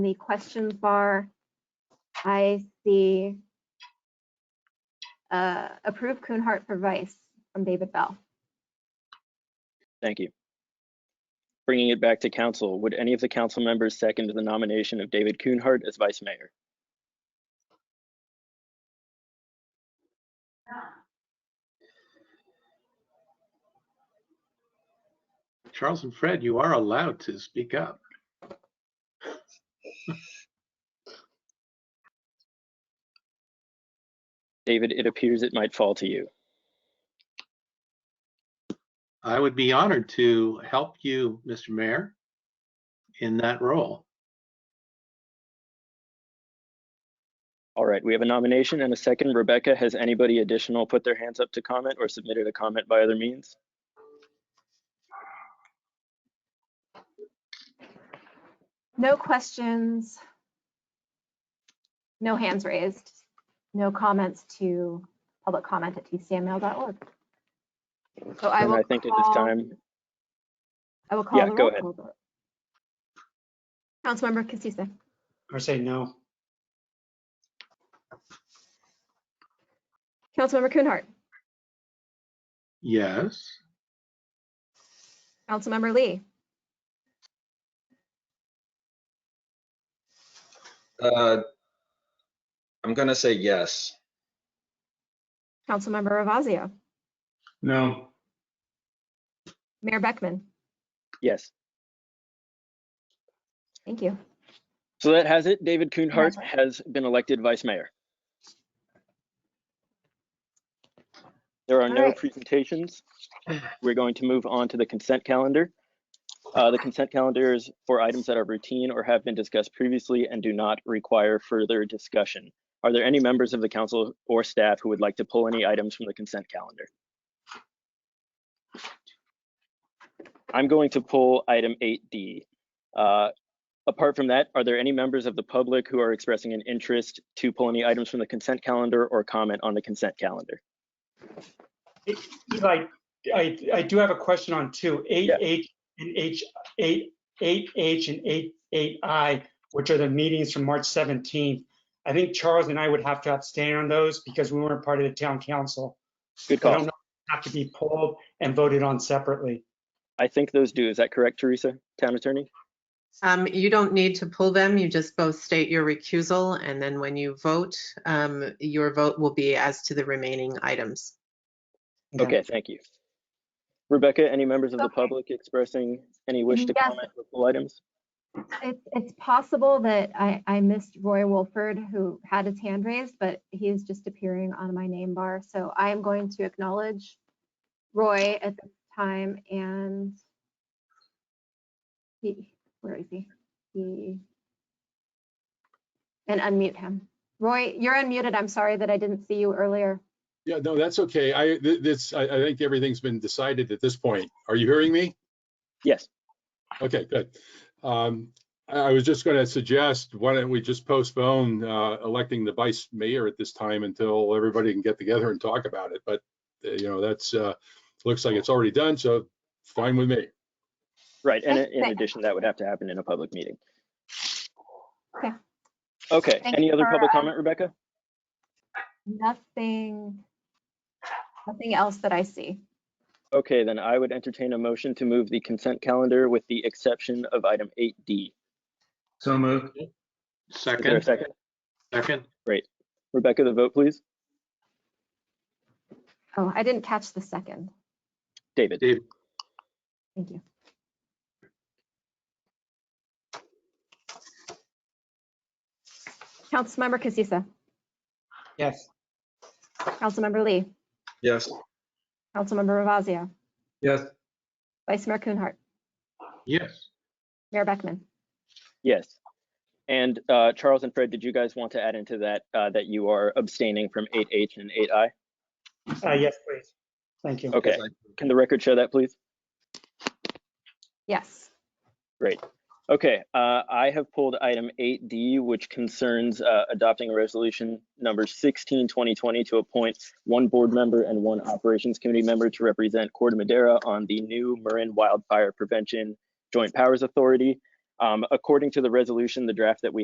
the questions bar, I see uh, approve Kuhnhart for vice from David Bell. Thank you. Bringing it back to council, would any of the council members second the nomination of David Kuhnhart as vice mayor? Charles and Fred, you are allowed to speak up. David, it appears it might fall to you. I would be honored to help you, Mr. Mayor, in that role. All right, we have a nomination and a second. Rebecca, has anybody additional put their hands up to comment or submitted a comment by other means? No questions. No hands raised. No comments to public comment at tcml.org. So I And will I think at this call- time, I will call yeah, the go roll ahead. call vote. Councilmember Casissa, Or say no. Councilmember Kuhnhart, Yes, Councilmember Lee, Uh, I'm gonna say yes. Councilmember Ravazio, No. Mayor Beckman. yes. Thank you. So that has it. David Kuhnhart has been elected vice mayor. There are All no right. presentations. We're going to move on to the consent calendar. Uh, The consent calendar is for items that are routine or have been discussed previously and do not require further discussion. Are there any members of the council or staff who would like to pull any items from the consent calendar? I'm going to pull item 8D. Uh, Apart from that, are there any members of the public who are expressing an interest to pull any items from the consent calendar or comment on the consent calendar? Eli, I, I do have a question on two, eight Yeah. H and H, eight, eight H and eight, eight I, which are the meetings from March 17th. I think Charles and I would have to abstain on those because we weren't part of the town council. Good I don't call. know, Have to be pulled and voted on separately. I think those do. Is that correct, Teresa, town attorney? Um, you don't need to pull them. You just both state your recusal and then when you vote, um, your vote will be as to the remaining items. Okay, thank you. Rebecca, any members of the Okay. public expressing any wish to Yes. comment or pull items? It's, it's possible that I, I missed Roy Wolford, who had his hand raised, but he is just appearing on my name bar. So I am going to acknowledge Roy at this time and he, where is he? He, and unmute him. Roy, you're unmuted. I'm sorry that I didn't see you earlier. Yeah, no, that's okay. I, th- this, I, I think everything's been decided at this point. Are you hearing me? Yes, Okay, good. Um, I, I was just gonna suggest, why don't we just postpone, uh, electing the vice mayor at this time until everybody can get together and talk about it, but, uh, you know, that's, uh, looks like it's already done, so fine with me. right. And Thank- in thank- addition, that would have to happen in a public meeting. Okay. Okay, Thank any you other for, public um, comment, Rebecca? Nothing, nothing else that I see. Okay, then I would entertain a motion to move the consent calendar with the exception of item 8D. So moved. Is there a second, second? second. Rebecca, the vote, please. Oh, I didn't catch the second. David. Dave, Thank you. Councilmember Casissa, Yes. Councilmember Lee, Yes. Councilmember Ravazio, Yes. Vice Mayor Coonheart, Yes, Mayor Beckman. Yes. And uh, Charles and Fred, did you guys want to add into that uh, that you are abstaining from 8H and 8I? Uh, yes, please. Thank you. Okay. Can the record show that, please? Yes. Okay, uh, I have pulled item 8D, which concerns uh, adopting a resolution number 16, 2020 to appoint one board member and one operations committee member to represent Corte Madera on the new Marin Wildfire Prevention Joint Powers Authority. Um, according to the resolution, the draft that we